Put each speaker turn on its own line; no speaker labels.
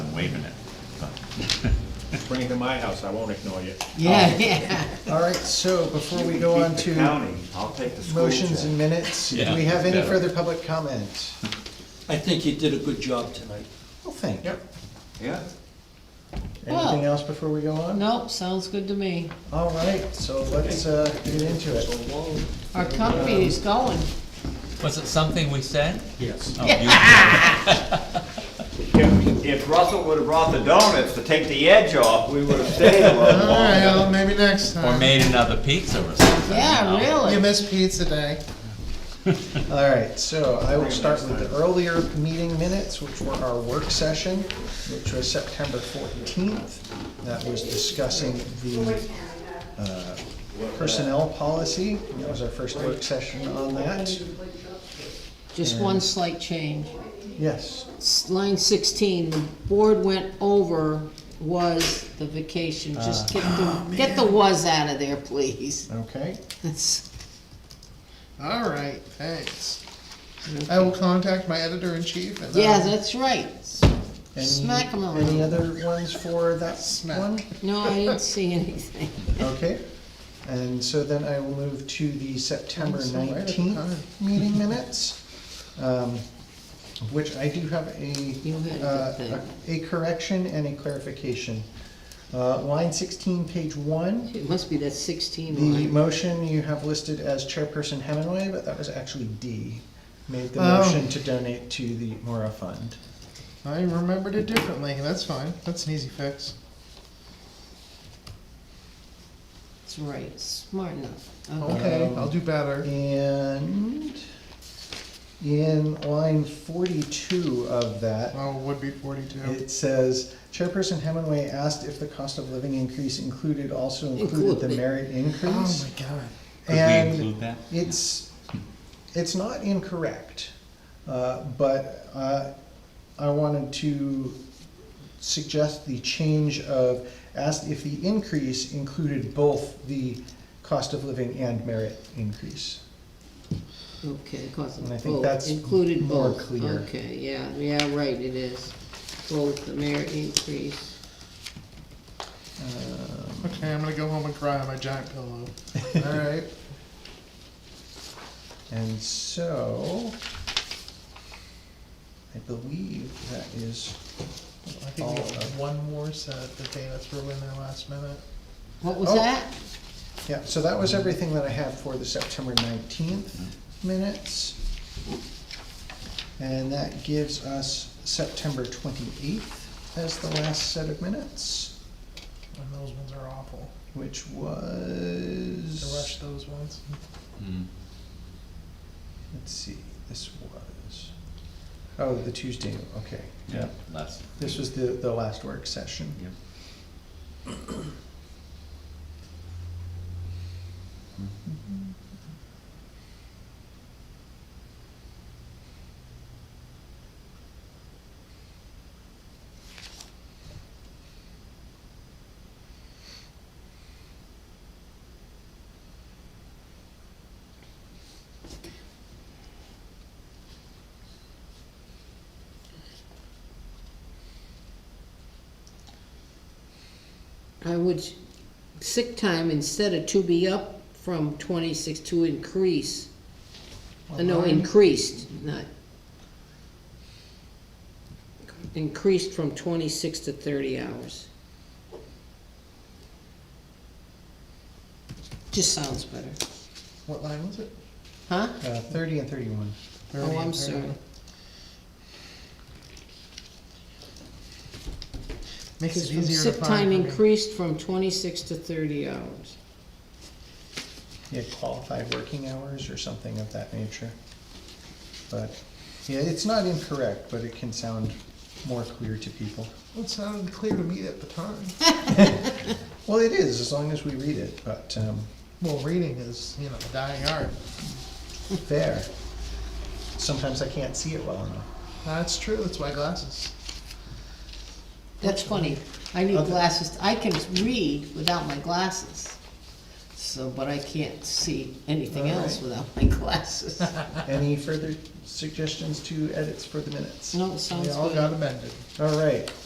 waiving it.
Bring it to my house, I won't ignore you.
Yeah, yeah.
Um, All right, so before we go
Keep
on
the
to
County, I'll take the school
motions and
check.
minutes, do
Yeah,
we have any
better.
further public comment?
I think you did a good job tonight.
Well, thank you.
Yeah,
Anything else before we go on?
Nope, sounds good to me.
All right, so let's uh, get into it.
Our company is going.
Was it something we said?
Yes.
Oh, you-
if, if Russell would've brought the donuts to take the edge off, we would've stayed a little
All right,
longer.
well, maybe next
Or
time.
made another pizza or something.
Yeah,
You
really.
missed pizza day.
All right, so I will start with the earlier meeting minutes, which were our work session, which was September fourteenth. That was discussing the uh, personnel policy. That was our first work session on that.
Just one slight change.
Yes,
S- Line sixteen, the board went over was the vacation.
Ah.
Just get
Oh,
the, get the was out of there, please.
okay.
That's-
All right, thanks. I will contact my editor in chief and.
Yeah,
um,
that's right.
Any-
Smack 'em around.
Any other ones for that
Smack.
one?
No, I didn't see anything.
Okay, and so then I will move to the September
So right at the time.
nineteenth meeting minutes, um, which I do have
You had a
a,
good
uh,
thing.
a correction and a clarification. Uh, Line sixteen, page one,
It must be that sixteen
the
line.
motion you have listed as Chairperson Hemingway, but that was actually D. Made the
Oh.
motion to donate to the Mora Fund.
I remembered it differently. That's fine. That's an easy fix.
That's right, smart enough. Okay.
Okay,
Um,
I'll do better.
And in line forty-two of that,
Well, it would be Oh, forty-two.
It says, Chairperson Hemingway asked if the cost of living increase included, also included the
Included.
merit
Oh
increase.
my god.
Could we include
And
that?
it's, it's not incorrect, uh, but, uh, I wanted to suggest the change of, asked if the increase included both the cost of living and merit increase.
Okay, cause
And I
of
think
both,
that's
included
more
both.
clear.
Okay, yeah, yeah, right, it is. Both the merit increase.
Um,
Okay, I'm gonna go home and cry on my giant pillow. All right.
And so, I believe that is
I think we got one more set that they, that's ruined their last minute.
What was
Oh.
that?
Yeah, so that was everything that I have for the September nineteenth minutes. And that gives us September twenty-eighth as the last set of minutes,
And those ones are awful.
which
To rush
was,
those ones.
Mm.
let's see, this was, oh, the Tuesday, okay.
Yeah, last.
This was the, the last work session.
Yep.
Oh. I would, sick time, instead of to be up from twenty-six to increase. Uh, No, increased, not. Increased from twenty-six to thirty hours. Just sounds better,
What line was it?
huh?
Uh, thirty and thirty-one.
Oh, I'm
30.
sorry.
Makes
Because
it
from
easier to
sick
find.
time
for me.
increased from twenty-six to thirty hours.
yeah, qualified working hours or something of that nature. But, yeah, it's not incorrect, but it can sound more clear to people.
Well, It sounded clear to me at the time.
Well, it is, as long as we read it, but, um,
Well, reading is, you know, a dying art.
there. Sometimes I can't see it well enough.
That's true. That's why glasses.
That's funny, I need
Okay.
glasses, I can read without my glasses. So, but I can't see anything
All
else
right.
without my glasses.
Any further suggestions to edits for the minutes?
No, sounds
They all
good.
got amended.
All right,